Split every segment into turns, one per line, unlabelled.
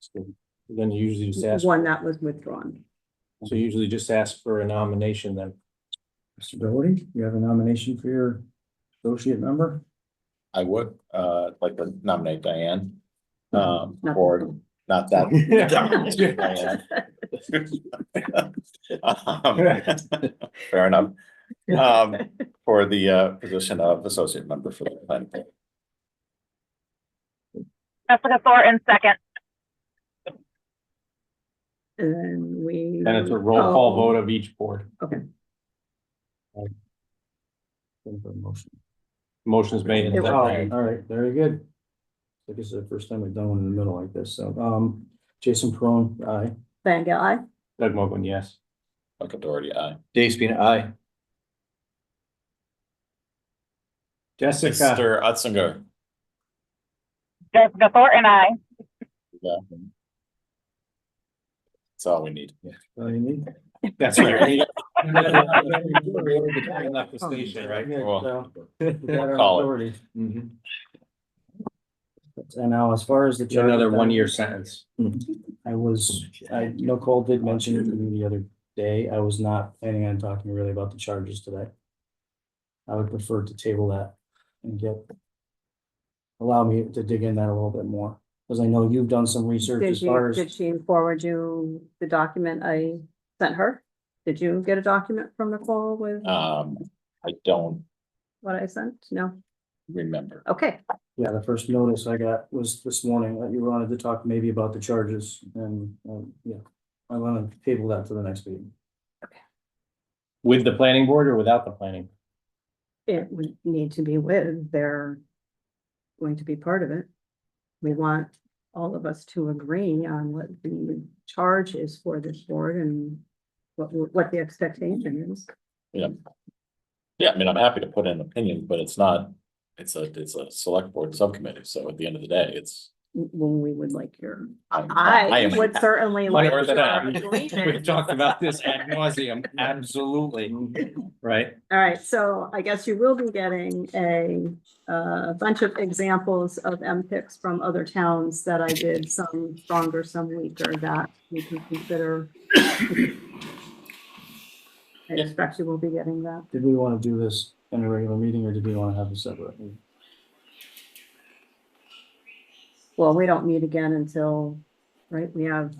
So Then you usually just ask,
one that was withdrawn.
so you usually just ask for a nomination then.
Mr. Doherty, you have a nomination for your associate member?
I would, uh, like to nominate Diane. Um,
Not-
or not that. Diane. Um, Fair enough. Um, for the, uh, position of associate member for the planning. board.
Jessica Thornton, second.
And we.
And it's a roll call vote of each board.
Oh. Okay.
Motion's made. and
It
Oh, all
seconded.
right, very good. So This is the first time we've done one in the middle like this, so, um, Jason Peron, aye.
Van Gogh, aye.
Doug Mogul, yes.
Michael Doherty, aye.
Dave Spina, aye. Jessica,
Mr. Utzinger.
Jessica Thornton, I.
Yeah. That's all we need.
Uh, you need-
that's right.
Well,
You got our
Call it.
authority.
Mhm.
And now, as far as the. charter,
Another one-year sentence.
I was, I, Nicole did mention it to me the other day, I was not planning on talking really about the charges today. I would prefer to table that and get. Allow me to dig in that a little bit more, because I know you've done some research
Did
as
you,
far
did
as,
she forward you the document I sent her? Did you get a document from Nicole with
Uh,
Um, I don't
what I sent? No?
remember.
Okay,
yeah, the first notice I got was this morning, that you wanted to talk maybe about the charges and, um, yeah. I wanna table that to the next meeting.
With the planning board or without the planning?
it would need to be with, they're going to be part of it. We want all of us to agree on what the charge is for this board and what, what the expectation is.
Yeah, I mean, I'm happy to put in an opinion, but it's not, it's a, it's a select board subcommittee, so at the end of the day, it's.
when we would like your,
I'm-
I
am-
would certainly like.
Whatever that
your
is. We've
agreement.
talked about this ad nauseum, absolutely,
Mm-hmm.
right?
All right, so I guess you will be getting a, uh bunch of examples of M picks from other towns that I did, some stronger, some weaker, that you can consider. I expect you will be getting that.
Did we wanna do this in a regular meeting, or did we wanna have a separate? meeting?
Well, we don't meet again until, right, we have,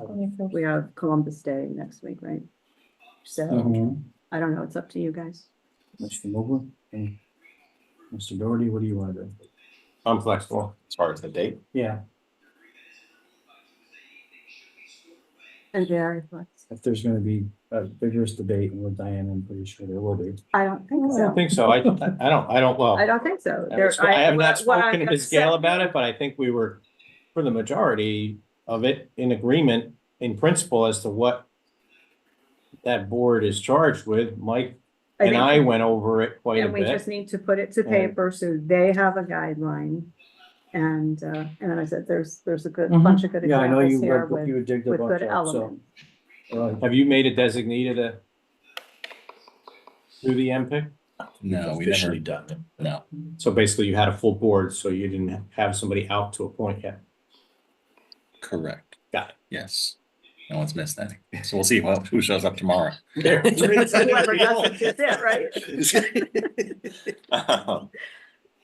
we have Columbus Day next week, right?
Mm-hmm.
So,
Mm-hmm.
I don't know, it's up to you guys.
Mr. Mogul and Mr. Doherty, what do you want to do?
I'm flexible.
As far as the date,
Yeah,
And Jerry, what's-
if there's gonna be a vigorous debate with Diane, I'm pretty sure there will be.
I don't
I
think
don't
so.
think so. I, I don't, I don't, well.
I don't think so.
I
There-
haven't spo- I have not
what- what
spoken to
I've
Ms. Gale
said-
about it, but I think we were, for the majority of it, in agreement in principle as to what that board is charged with. Mike and
think-
I went over it quite a
And we
bit.
just need to put it to
And-
paper so they have a guideline. And, uh, and then I said, there's, there's a good,
Mhm.
bunch of good
Yeah, I know
examples
you,
here
read-
with,
you digged
with
up on
good
that, so.
elements.
uh,
Have you made a designated a through the MPIC?
no, we never done it, no.
So basically you had a full board, so you didn't have somebody out to a point yet.
Correct.
Got it.
Yes. No one's missed anything. So we'll see who who shows up tomorrow.
Whoever does it, that's it, right?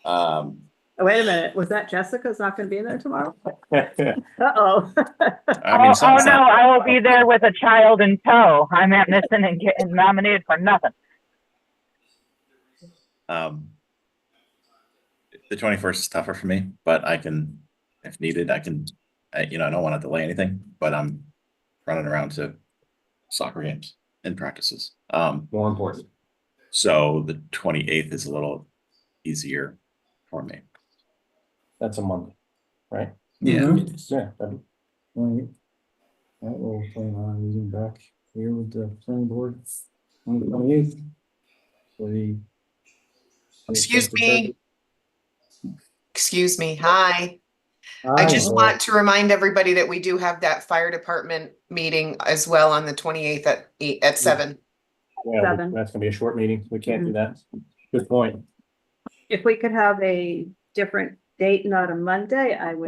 Um,
Oh, Wait a minute, was that Jessica's not gonna be there tomorrow? Uh-oh.
I
Oh,
mean,
oh
someone's
no,
not-
I will be there with a child in tow. I'm not missing and getting nominated for nothing.
um, The twenty-first is tougher for me, but I can, if needed, I can, I, you know, I don't want to delay anything, but I'm running around to soccer games and practices. Um,
More important.
so the twenty-eighth is a little easier for me.
That's a Monday.
Yeah.
Yeah. that'd be-
Alright. Mm-hmm. That will plan on meeting back here with the planning board on the twenty eighth. For the.
Excuse me. Excuse me. Hi. I
Aye.
just want to remind everybody that we do have that fire department meeting as well on the 28th at eight, at seven.
Yeah,
Seven. Mm-hmm.
that's gonna be a short meeting. We can't do that. Good point.
If we could have a different date, not a Monday, I would